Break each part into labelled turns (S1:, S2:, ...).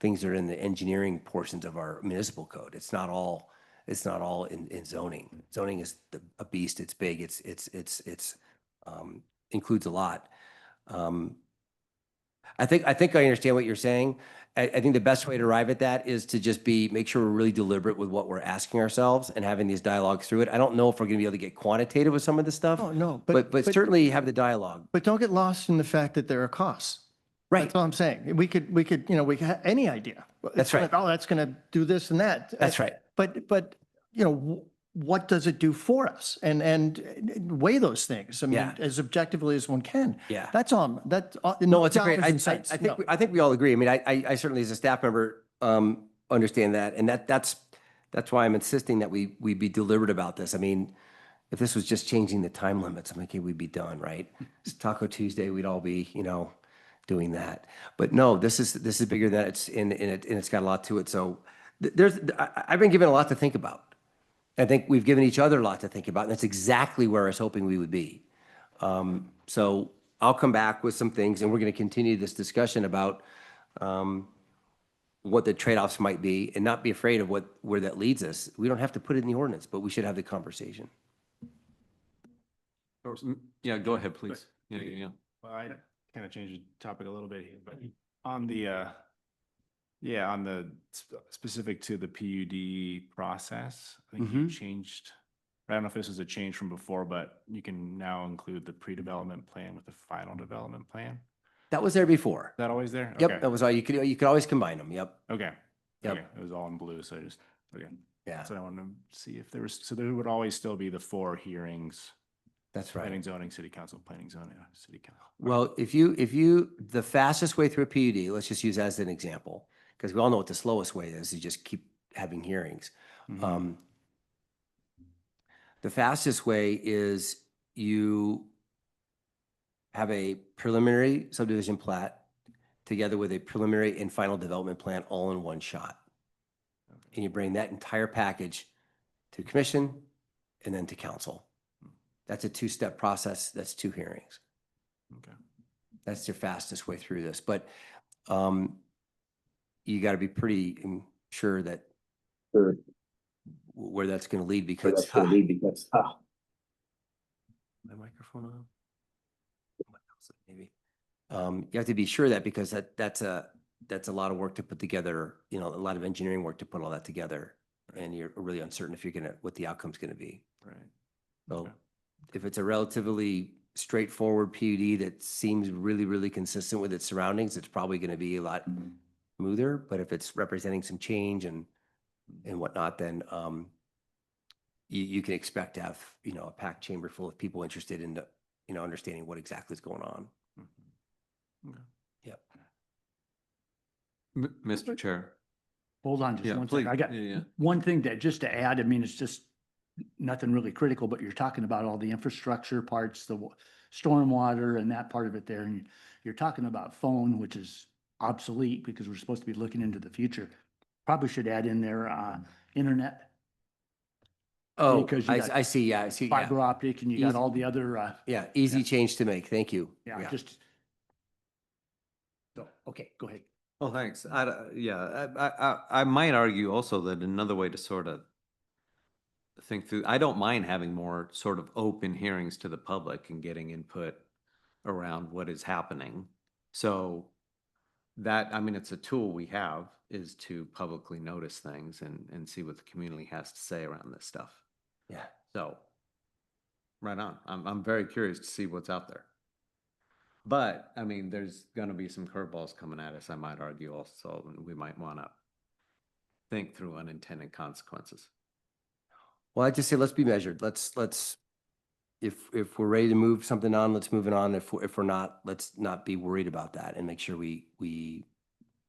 S1: things that are in the engineering portions of our municipal code. It's not all, it's not all in, in zoning. Zoning is the- a beast. It's big. It's, it's, it's, it's, um, includes a lot. Um, I think, I think I understand what you're saying. I, I think the best way to arrive at that is to just be, make sure we're really deliberate with what we're asking ourselves and having these dialogues through it. I don't know if we're going to be able to get quantitative with some of this stuff,
S2: Oh, no,
S1: but,
S2: but,
S1: but
S2: but,
S1: certainly have the dialogue.
S2: but don't get lost in the fact that there are costs.
S1: Right.
S2: That's all I'm saying. We could, we could, you know, we could have any idea. It's
S1: right.
S2: like, Oh, that's going to do this and that.
S1: That's right.
S2: But, but, you know, wh- what does it do for us? And, and weigh those things. I mean,
S1: Yeah.
S2: as objectively as one can.
S1: Yeah.
S2: That's all, I'm- that's. all-
S1: No, it's a great,
S2: dollars
S1: I,
S2: and
S1: I, I
S2: cents, no.
S1: think, we- I think we all agree. I mean, I, I, I certainly as a staff member, um, understand that. And that, that's, that's why I'm insisting that we, we be deliberate about this. I mean, if this was just changing the time limits, I'm like, okay, we'd be done, right? It's Taco Tuesday, we'd all be, you know, doing that. But no, this is, this is bigger than that. It's, and, and it, and it's got a lot to it. So th- there's, I, I- I've been given a lot to think about. I think we've given each other a lot to think about. And that's exactly where I was hoping we would be. So I'll come back with some things and we're going to continue this discussion about um, what the trade-offs might be and not be afraid of what, where that leads us. We don't have to put it in the ordinance, but we should have the conversation.
S3: Or m- Yeah, go ahead, please. Yeah, yeah, yeah.
S4: Well, I kind of changed the topic a little bit here, but on the, uh, yeah, on the sp- specific to the PUD process, I think
S1: Mm-hmm.
S4: you changed, I don't know if this was a change from before, but you can now include the pre-development plan with the final development plan. Is
S1: That was there before.
S4: that always there?
S1: Yep,
S4: Okay,
S1: that was all. You could, you could always combine them. Yep.
S4: Okay.
S1: Yep.
S4: okay, It was all in blue, so I just, okay.
S1: Yeah,
S4: So I want to see if there was, so there would always still be the four hearings,
S1: that's right.
S4: planning, zoning, city council, planning, zoning, uh, city council.
S1: Well, if you, if you, the fastest way through a PUD, let's just use that as an example, because we all know what the slowest way is, is just keep having hearings.
S4: Mhm.
S1: Um, the fastest way is you have a preliminary subdivision plat together with a preliminary and final development plan all in one shot.
S4: Okay.
S1: And you bring that entire package to commission and then to council. That's a two-step process. That's two hearings.
S4: Okay.
S1: That's your fastest way through this, but, um, you got to be pretty um, sure that
S5: Sure.
S1: w- where that's going to lead
S5: Sure,
S1: because
S5: that's gonna be because, ah,
S1: my microphone on? What else, Maybe. Um, you have to be sure of that because that, that's a, that's a lot of work to put together, you know, a lot of engineering work to put all that together. And you're really uncertain if you're gonna, what the outcome's gonna be.
S4: Right.
S1: So
S4: Okay.
S1: if it's a relatively straightforward PUD that seems really, really consistent with its surroundings, it's probably gonna be a lot smoother. But if it's representing some change and, and whatnot, then, um, you, you can expect to have, you know, a packed chamber full of people interested in, the- you know, understanding what exactly is going on. Yep.
S3: M- Mr. Chair.
S6: Hold on
S3: Yeah,
S6: just one
S3: please.
S6: second. I got
S3: Yeah, yeah.
S6: one thing that, just to add, I mean, it's just nothing really critical, but you're talking about all the infrastructure parts, the wa- stormwater and that part of it there. And you're talking about phone, which is obsolete because we're supposed to be looking into the future. Probably should add in there, uh, internet,
S1: Oh,
S6: Because you
S1: I,
S6: got
S1: I see, yeah, I see, yeah,
S6: fiber optic, and you got
S1: Easy.
S6: all the other, uh,
S1: yeah, easy change to make, thank you.
S6: yeah, just. So, okay, go ahead.
S3: Well, thanks. I, d- yeah, I, I- I, I might argue also that another way to sort of think through, I don't mind having more sort of open hearings to the public and getting input around what is happening. So that, I mean, it's a tool we have is to publicly notice things and, and see what the community has to say around this stuff.
S1: Yeah.
S3: So, right on. I'm, I'm very curious to see what's out there. But, I mean, there's gonna be some curveballs coming at us, I might argue also, and we might wanna think through unintended consequences.
S1: Well, I just say, let's be measured. Let's, let's, if, if we're ready to move something on, let's move it on. If, we're if we're not, let's not be worried about that and make sure we, we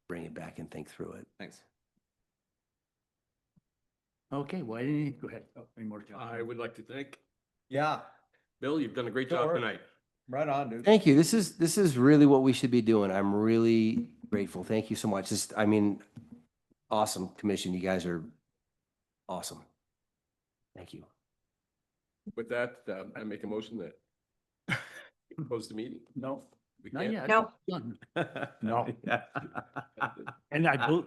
S1: bring it back and think through it.
S3: Thanks.
S6: Okay, well, any, go ahead. Oh, Any more? John?
S7: I would like to thank
S3: Yeah,
S7: Bill. You've done a great
S3: Don't
S7: job
S3: worry.
S7: tonight.
S3: right on, dude.
S1: Thank you. This is, this is really what we should be doing. I'm really grateful. Thank you so much. This, I mean, awesome commission. You guys are awesome. Thank you.
S7: With that, um, I make a motion that we close the meeting.
S6: No,
S8: We
S6: Not
S8: can't.
S6: yet.
S9: No.
S6: Done.
S7: No.
S10: No.
S7: Yeah.
S6: And I, bel-